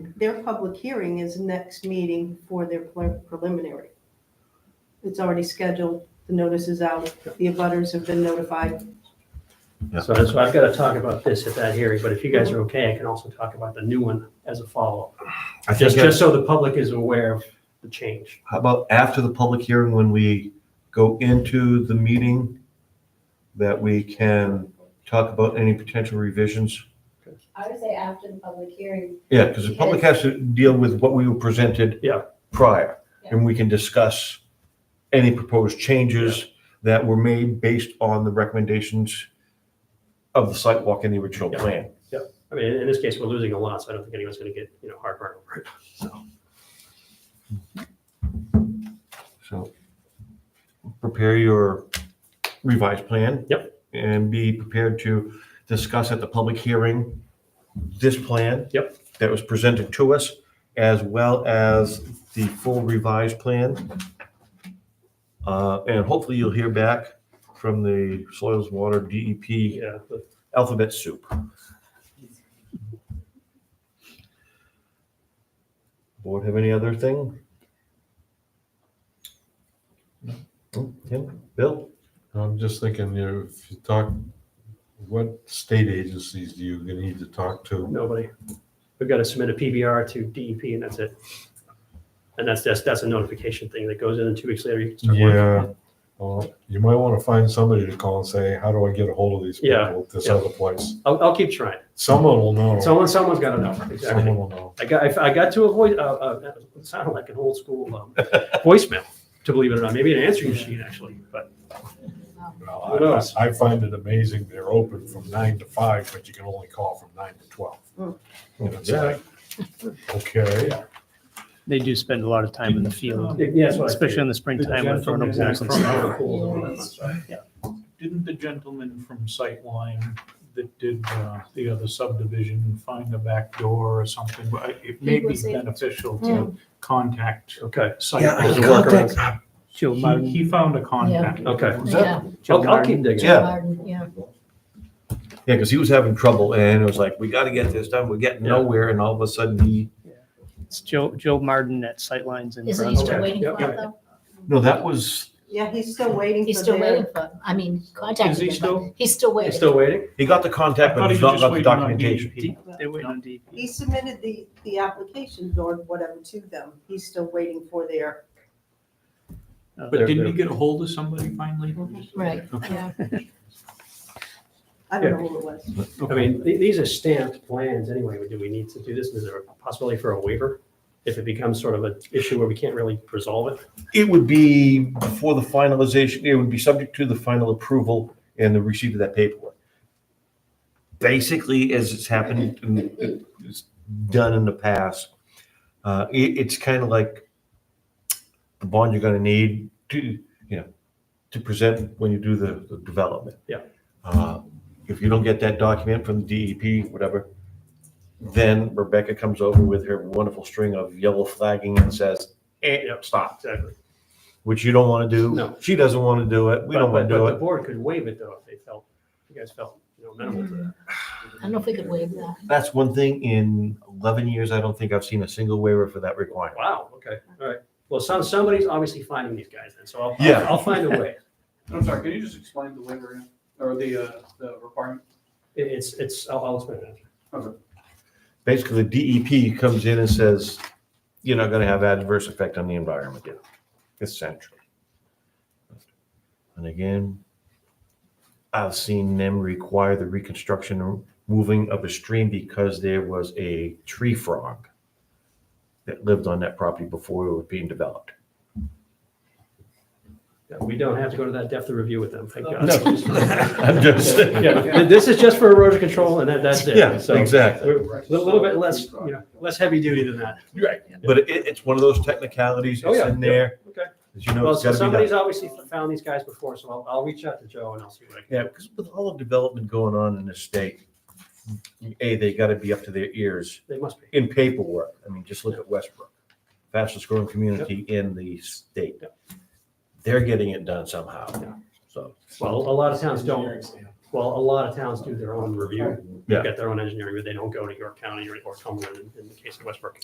their public hearing is next meeting for their pre- preliminary. It's already scheduled, the notice is out, the abutters have been notified. Yeah. So that's why I've got to talk about this at that hearing, but if you guys are okay, I can also talk about the new one as a follow-up. I think, Just, that- just so the public is aware of the change. how about after the public hearing, when we go into the meeting, that we can talk about any potential revisions? I would say after the public hearing, Yeah, because the public has to deal with what we were presented Yeah. prior, and we can discuss any proposed changes that were made based on the recommendations of the sidewalk and the original Yeah. plan. I mean, in this case, we're losing a lot, so I don't think anyone's going to get, you know, heartburn over it. So, So prepare your revised plan. Yep. And be prepared to discuss at the public hearing this plan. Yep. That was presented to us, as well as the full revised plan. Uh, And hopefully you'll hear back from the Soils and Water E DEP yeah, but alphabet soup. Board have any other thing? No? Tim, Bill? I'm just thinking, you know, if you talk, what state agencies do you need to talk to? nobody. We've got to submit a PBR to DEP and that's it. And that's, that's, that's a notification thing that goes in and two weeks later you can start working. Yeah, well, you might want to find somebody to call and say, how do I get a hold of these Yeah, people at this yeah. other place? I'll, I'll keep trying. Someone will know. Someone, someone's got to know. Exactly. Someone will know. I got, I got to a voice, uh, uh, it sounded like an old school um, voicemail, to believe it or not, maybe an answering machine actually, but Well, Who knows? I, I find it amazing, they're open from nine to five, but you can only call from nine to twelve. Mm. And it's like, okay, They do spend a lot of time in the field, yeah, that's what I especially figured. in the springtime when they're in the pools and stuff. Yeah. Didn't the gentleman from Sightline that did uh, the other subdivision find a back door or something? But I- It may He be was able beneficial to contact Okay, can Sightline. contact- Joe He, Martin, he found a contact. okay. yeah, I'll, I'll keep digging. Yeah. Martin, yeah. Yeah, because he was having trouble and it was like, we got to get this done. We're getting Yeah. nowhere. And all of a sudden he, it's Joe, Joe Martin at Sightlines Isn't in he Brunswick. still waiting Yep, for it though? no, that was, Yeah, he's still waiting He's for still waiting their, for, it. I mean, contacted Is he him, still- but he's still You're waiting. still waiting? he got the I contact, but thought he he's not was just got the waiting on documentation. DEP. They're waiting on DEP. he submitted the, the applications or whatever to them. He's still waiting for their, Uh, But they're- didn't he they're- get a hold of somebody finally? Right, yeah. I don't know who it was. I mean, th- these are stamped plans anyway, do we need to do this? Is there a possibility for a waiver? If it becomes sort of an issue where we can't really resolve it? It would be before the finalization, it would be subject to the final approval and the receipt of that paperwork. Basically, as it's happened and it's done in the past, uh, it, it's kind of like the bond you're gonna need to, you know, to present when you do the, the development. Yeah. Uh, If you don't get that document from the DEP, whatever, then Rebecca comes over with her wonderful string of yellow flagging and says, eh, Yep. stop Exactly. which you don't want to do. No. She doesn't want to do it. We don't want But- to But do the it. board could waive it though, if they felt, you guys felt, you know, minimal to that. I don't know if we could waive that. That's one thing in 11 years, I don't think I've seen a single waiver for that requirement. Wow, okay, all right. Well, some, somebody's obviously finding these guys then, so I'll, I'll- Yeah. I'll find a way. I'm sorry, can you just explain the waiver again? or the, uh, the requirement? It- It's, it's, I'll, I'll explain that. Basically, DEP comes in and says, you're not going to have adverse effect on the environment. Essentially. And again, I've seen them require the reconstruction or moving of a stream because there was a tree frog that lived on that property before it was being developed. Yeah, We don't have to go to that depth of review with them, thank God. No. I'm just- Yeah, th- This is just for erosion control and that, that's it. So exactly. We're a little bit less, you know, less heavy duty than that. Right, but it, it's one of those technicalities, Oh, it's yeah, in yeah, there. okay. As you know, Well, it's so gotta be somebody's done. obviously found these guys before, so I'll, I'll reach out to Joe and I'll see what I can. Yeah, because with all the development going on in the state, A, they gotta be up to their ears They must be. in paperwork. I mean, just look at Westbrook, fastest growing community in the state. They're getting it done somehow, Yeah. so. Well, a lot of towns don't, well, a lot of towns do their own review. They've Yeah. got their own engineering, but they don't go to York County or or Cumberland in- in the case of Westbrook.